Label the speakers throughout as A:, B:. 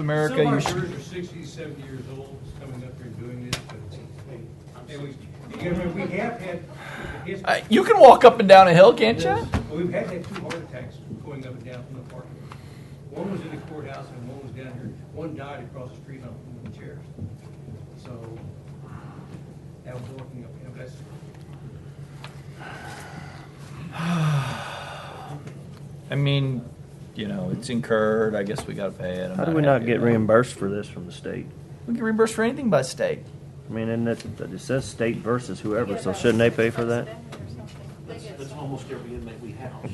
A: America.
B: Some of our
A: you-
B: shirts are 60, 70 years old, just coming up here and doing this, but, hey, and we, you gotta remember, we have had. history.
A: Uh, you can walk up and down a hill, can't you?
B: Well, We've had that two heart attacks going up and down from the parking lot. One was in the courthouse and one was down here. One died across the street on one of the chairs. So that was walking up, you know, that's,
A: I mean, you know, it's incurred. I guess we got to pay it. I'm
C: How do we not
A: happy
C: get
A: about it.
C: reimbursed for this from the state?
A: We get reimbursed for anything by state.
C: I mean, isn't it, it says state versus whoever, so shouldn't they pay for that?
D: That's, that's almost every inmate we house.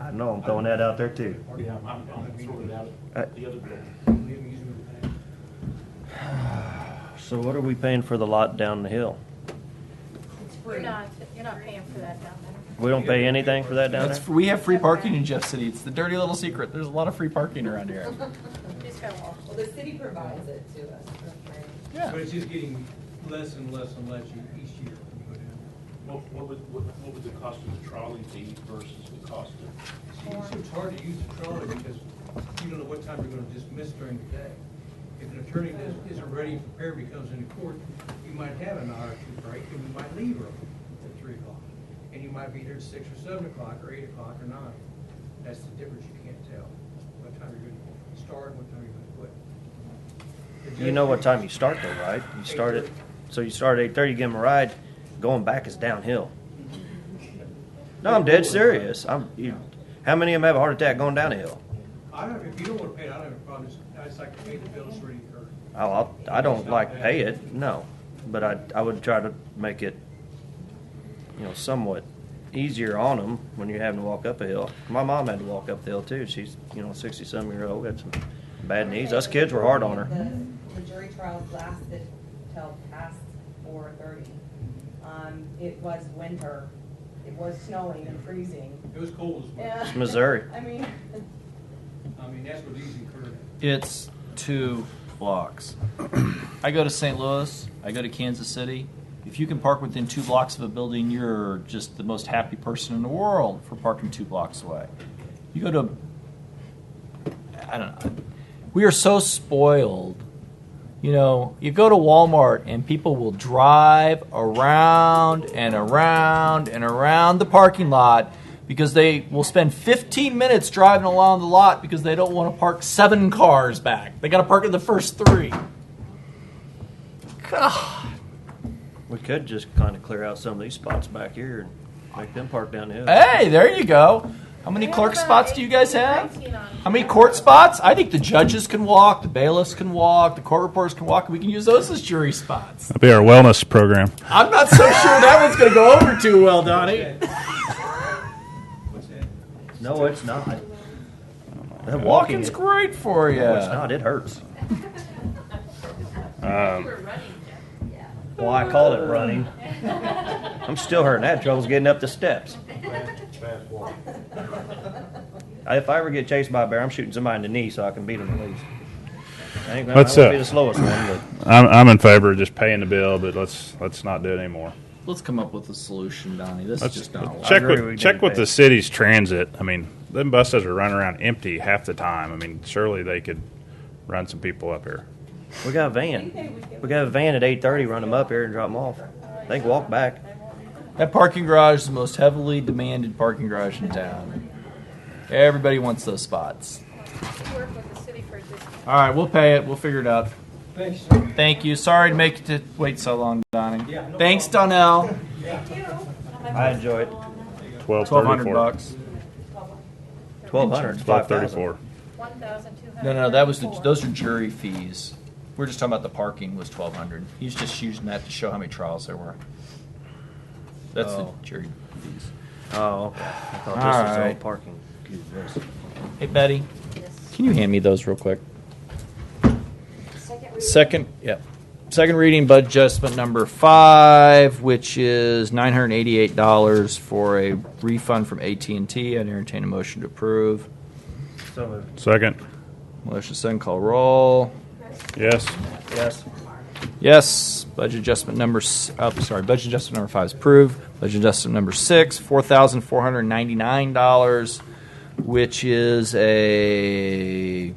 C: I know, I'm throwing that out there too.
D: Yeah, I'm, I'm throwing it out the other day.
B: we haven't used them in the past.
C: So what are we paying for the lot down the hill?
E: You're not, you're not paying for that down there.
C: We don't pay anything for that down
A: That's,
C: there?
A: we have free parking in Jeff City. It's the dirty little secret. There's a lot of free parking around here.
E: You just gotta walk.
F: Well, the city provides it to us for free.
A: Yeah.
B: But it's just getting less and less and less e- each year when you go down.
D: What, what would, what, what would the cost of the trolley be versus the cost of?
B: It's- It's hard to use the trolley because you don't know what time you're gonna dismiss during the day. If an attorney is- isn't ready and prepared, he comes into court, you might have an hour or two break, and you might leave early at three o'clock. And you might be there at six or seven o'clock, or eight o'clock, or nine. That's the difference, you can't tell what time you're gonna start and what time you're gonna quit. The
C: You
B: judge
C: know what
B: figures-
C: time you start though, right? You start at, so you start at eight-thirty, give them a ride, going back is downhill. No, I'm dead serious. I'm, you, how many of them have a heart attack going down a hill?
B: I don't, if you don't wanna pay it, I don't have a problem, It's- I just like to pay the bills already incurred.
C: Oh, I'll- I don't like pay it, no, but I, I would try to make it, you know, somewhat easier on them when you're having to walk up a hill. My mom had to walk up the hill too. She's, you know, sixty-some year old, had some bad knees. Us kids were hard on her.
F: The- The jury trials lasted till past four thirty. Um, it was winter, it was snowing and freezing.
B: It was cold as well.
F: Yeah.
C: Missouri.
F: I mean,
B: I mean, that's what these incurred.
A: It's two blocks. I go to St. Louis. I go to Kansas City. If you can park within two blocks of a building, you're just the most happy person in the world for parking two blocks away. You go to, I don't know. We are so spoiled. You know, you go to Walmart and people will drive around and around and around the parking lot because they will spend 15 minutes driving along the lot because they don't want to park seven cars back. They got to park in the first three. God.
C: We could just kind of clear out some of these spots back here and make them park down the hill.
A: Hey, there you go. How many
E: We have
A: clerk
E: about
A: spots do you guys
E: 18,
A: have?
E: 19 on
A: How many
E: here.
A: court spots? I think the judges can walk, the bailiffs can walk, the court reporters can walk. and We can use those as jury spots.
G: That'd be our wellness program.
A: I'm not so sure that one's going to go over too well, Donnie.
B: What's that?
C: No, it's not. That walking,
A: Walking's
C: is- no,
A: great for you.
C: it's not. It hurts.
G: Um,
C: Well, I call it running. I'm still hurting. I had troubles getting up the steps.
D: Fast walk.
C: If I ever get chased by a bear, I'm shooting somebody in the knee so I can beat them at least. I ain't gonna,
G: Let's,
C: I won't
G: uh,
C: be the slowest one, but
G: I'm, I'm in favor of just paying the bill, but let's let's not do it anymore.
A: Let's come up with a solution, Donnie. This
G: Let's
A: is just not.
G: check
C: agree we
G: with
C: need
G: check
C: to
G: with
C: pay.
G: the city's transit. I mean, them buses are running around empty half the time. I mean, surely they could run some people up here.
C: we got a van. We got a van at 8:30. Run them up here and drop them off. They can walk back.
A: That parking garage is the most heavily demanded parking garage in town. Everybody wants those spots.
E: Work with the city for a discount.
A: All right, we'll pay it. We'll figure it out.
B: Thanks, sir.
A: Thank you. Sorry to make you to wait so long, Donnie.
B: Yeah, no
A: Thanks, Donnell.
C: I enjoy it.
A: Twelve
G: Twelve thirty
A: hundred
G: four.
A: bucks.
C: 1,200. It's
G: Twelve
C: 5,000.
G: thirty four.
E: One thousand two hundred.
A: No, no, that was the, those are jury fees. We're just talking about the parking was twelve hundred. He's just using that to show how many trials there were. That's
C: Oh.
A: the jury fees.
C: Oh, okay. I thought this
A: All
C: was all
A: right.
C: parking. Goodness.
A: Hey, Betty, can you hand me those real quick? Second, yeah. Second reading budget adjustment number five, which is nine hundred eighty-eight dollars for a refund from AT and T. I entertain a motion to approve.
C: So moved.
G: Second.
A: Motion second, call roll.
G: Yes.
C: Yes.
A: Yes. Budget adjustment number. s- Oh, sorry. Budget adjustment number five is approved. Budget adjustment number six, four thousand four hundred ninety-nine dollars, which is a